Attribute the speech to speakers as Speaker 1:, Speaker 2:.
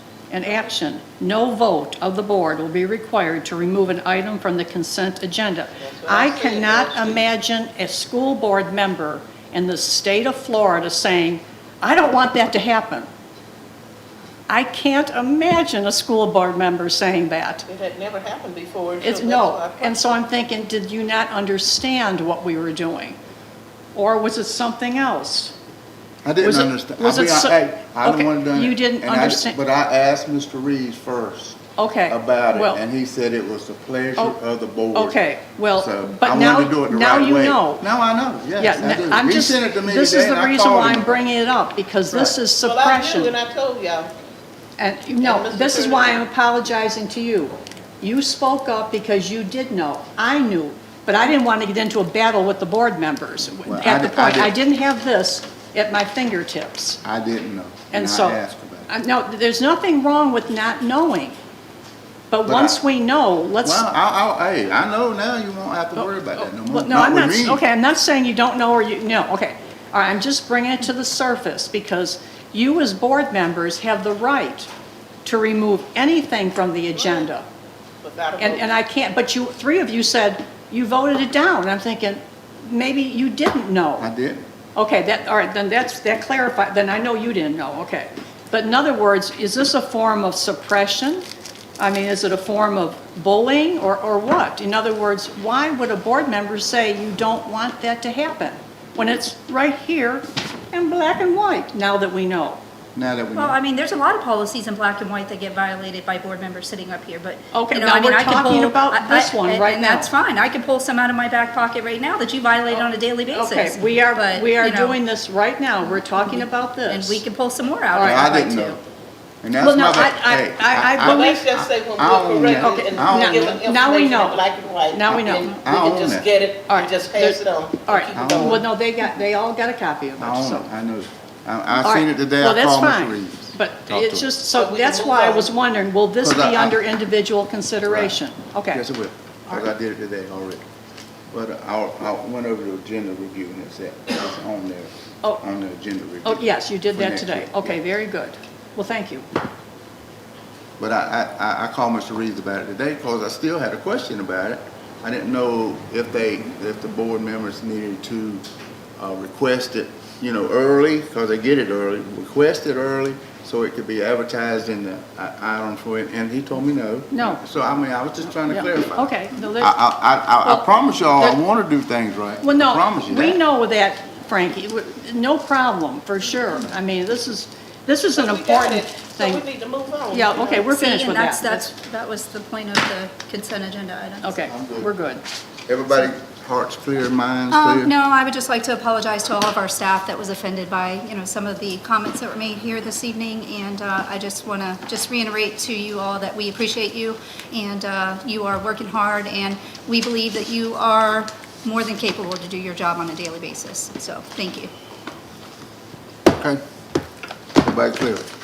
Speaker 1: and action, no vote of the board will be required to remove an item from the consent agenda. I cannot imagine a school board member in the state of Florida saying, I don't want that to happen. I can't imagine a school board member saying that.
Speaker 2: It had never happened before. so
Speaker 1: It's,
Speaker 2: that's
Speaker 1: no,
Speaker 2: why I-
Speaker 1: and so I'm thinking, did you not understand what we were doing? Or was it something else?
Speaker 3: I didn't
Speaker 1: Was it-
Speaker 3: understand.
Speaker 1: was
Speaker 3: I
Speaker 1: it so-
Speaker 3: hey, I
Speaker 1: okay,
Speaker 3: didn't want to do it.
Speaker 1: you didn't
Speaker 3: and I-
Speaker 1: understand-
Speaker 3: But I asked Mr. Reeves first
Speaker 1: Okay.
Speaker 3: about
Speaker 1: well,
Speaker 3: it, and he said it was the pleasure
Speaker 1: Oh,
Speaker 3: of the board.
Speaker 1: okay, well,
Speaker 3: So
Speaker 1: but
Speaker 3: I
Speaker 1: now-
Speaker 3: wanted to do it the
Speaker 1: now
Speaker 3: right
Speaker 1: you
Speaker 3: way.
Speaker 1: know.
Speaker 3: Now I know,
Speaker 1: Yeah,
Speaker 3: yes. I do.
Speaker 1: n- I'm
Speaker 3: He
Speaker 1: just,
Speaker 3: sent it to me
Speaker 1: this is
Speaker 3: today,
Speaker 1: the
Speaker 3: and I
Speaker 1: reason
Speaker 3: called
Speaker 1: why
Speaker 3: him.
Speaker 1: I'm bringing it up, because this
Speaker 3: Right.
Speaker 1: is
Speaker 2: Well, I knew, and
Speaker 1: suppression.
Speaker 2: I told y'all,
Speaker 1: And, no,
Speaker 2: And Mr.
Speaker 1: this is why I'm
Speaker 2: Turner.
Speaker 1: apologizing to you. You spoke up because you did know, I knew, but I didn't want to get into a battle with the board members.
Speaker 3: Well, I
Speaker 1: At the
Speaker 3: di- I
Speaker 1: point, I
Speaker 3: did-
Speaker 1: didn't have this at my fingertips,
Speaker 3: I didn't know.
Speaker 1: and so.
Speaker 3: I asked about
Speaker 1: I-
Speaker 3: it.
Speaker 1: No, there's nothing wrong with not knowing, but
Speaker 3: But I-
Speaker 1: once we know, let's.
Speaker 3: Well, I, I, hey, I know now you won't have to worry about that no more.
Speaker 1: Oh, Well, No, I'm
Speaker 3: with
Speaker 1: not,
Speaker 3: me.
Speaker 1: okay, I'm not saying you don't know or you, no, okay. All right, I'm just bringing it to the surface because you as board members have the right to remove anything from the agenda.
Speaker 2: without a
Speaker 1: And, and
Speaker 2: vote.
Speaker 1: I can't, but you, three of you said you voted it down. I'm thinking, maybe you didn't
Speaker 3: I
Speaker 1: know.
Speaker 3: didn't.
Speaker 1: Okay, that, all right, then that's, that clarified, then I know you didn't know, okay. But in other words, is this a form of suppression? I mean, is it a form of bullying or, or what? In other words, why would a board member say you don't want that to happen? When it's right here in black and white, now that we know.
Speaker 3: Now that we
Speaker 4: Well, I
Speaker 3: know.
Speaker 4: mean, there's a lot of policies in black and white that get violated by board members sitting up here, but.
Speaker 1: Okay,
Speaker 4: you know,
Speaker 1: now
Speaker 4: I mean,
Speaker 1: we're
Speaker 4: I could
Speaker 1: talking
Speaker 4: pull-
Speaker 1: about
Speaker 4: I-
Speaker 1: this
Speaker 4: I-
Speaker 1: one
Speaker 4: and-
Speaker 1: right
Speaker 4: And
Speaker 1: now.
Speaker 4: that's fine, I could pull some out of my back pocket right now that you violate on a daily basis.
Speaker 1: Okay, we are,
Speaker 4: but,
Speaker 1: we are
Speaker 4: you know,
Speaker 1: doing this right now. We're talking about this.
Speaker 4: And we can pull some more out
Speaker 3: Well,
Speaker 4: if
Speaker 3: I
Speaker 4: I'd like
Speaker 3: didn't know.
Speaker 4: to.
Speaker 3: And that's
Speaker 1: Well, no,
Speaker 3: my, ba-
Speaker 1: I- I-
Speaker 3: hey,
Speaker 1: I- I
Speaker 2: But
Speaker 1: believe-
Speaker 2: let's just say when
Speaker 3: I
Speaker 2: we're
Speaker 3: own that.
Speaker 2: corrected
Speaker 3: I own
Speaker 2: and given
Speaker 1: that. Now we
Speaker 2: information
Speaker 1: know.
Speaker 2: in black and white.
Speaker 1: Now we know.
Speaker 2: then
Speaker 3: I
Speaker 2: We
Speaker 3: own
Speaker 2: can
Speaker 3: that.
Speaker 2: just get it
Speaker 1: All right,
Speaker 2: and just pass
Speaker 1: there-
Speaker 2: it on.
Speaker 1: All
Speaker 2: and
Speaker 1: right,
Speaker 2: keep it
Speaker 3: don't-
Speaker 2: going.
Speaker 1: well, no, they got, they all got a copy of
Speaker 3: I
Speaker 1: it,
Speaker 3: own
Speaker 1: so.
Speaker 3: it, I know. I,
Speaker 1: All
Speaker 3: I seen
Speaker 1: right.
Speaker 3: it today,
Speaker 1: Well,
Speaker 3: I
Speaker 1: that's
Speaker 3: called
Speaker 1: fine.
Speaker 3: Mr. Reeves.
Speaker 1: But
Speaker 3: Talked
Speaker 1: it's
Speaker 3: to him.
Speaker 1: just,
Speaker 2: But
Speaker 1: so
Speaker 2: we
Speaker 1: that's
Speaker 2: can
Speaker 1: why I
Speaker 2: move
Speaker 1: was
Speaker 2: on.
Speaker 1: wondering, will this
Speaker 3: Because
Speaker 1: be
Speaker 3: I- I-
Speaker 1: under individual consideration? Okay.
Speaker 3: Yes, it will, because I did it today already. But uh, I, I went over the agenda review and it's, at- it's on there,
Speaker 1: Oh.
Speaker 3: on the agenda review.
Speaker 1: Oh, yes, you did
Speaker 3: for
Speaker 1: that
Speaker 3: next
Speaker 1: today.
Speaker 3: week.
Speaker 1: Okay, very good. Well, thank you.
Speaker 3: But I, I- I, I called Mr. Reeves about it today because I still had a question about it. I didn't know if they, if the board members needed to, uh, request it, you know, early, because they get it early, request it early so it could be advertised in the i- item for it, and he told me no.
Speaker 1: No.
Speaker 3: So I mean, I was just trying to
Speaker 1: Yeah.
Speaker 3: clarify.
Speaker 1: Okay, no,
Speaker 3: I,
Speaker 1: that's-
Speaker 3: I, I,
Speaker 1: Well,
Speaker 3: I promise y'all, I
Speaker 1: there-
Speaker 3: want to do things right.
Speaker 1: Well,
Speaker 3: I promise you
Speaker 1: no, we
Speaker 3: that.
Speaker 1: know that, Frankie, W- no problem, for sure. I mean, this is, this is an
Speaker 2: We got
Speaker 1: important
Speaker 2: it, So we
Speaker 1: thing.
Speaker 2: need to move on.
Speaker 1: Yeah,
Speaker 2: you know.
Speaker 1: okay, we're
Speaker 4: See,
Speaker 1: finished
Speaker 4: and
Speaker 1: with
Speaker 4: that's-
Speaker 1: that.
Speaker 4: That's, that was the point of the consent agenda item.
Speaker 1: Okay,
Speaker 3: I'm good.
Speaker 1: we're good.
Speaker 3: Everybody hearts clear, minds
Speaker 1: Uh,
Speaker 3: clear?
Speaker 4: Um, no, I would just like to apologize to all of our staff that was offended by, you know, some of the comments that were made here this evening. And, uh, I just want to just reiterate to you all that we appreciate you and, uh, you are working hard and we believe that you are more than capable to do your job on a daily basis. So, thank you.
Speaker 3: Okay. Everybody clear?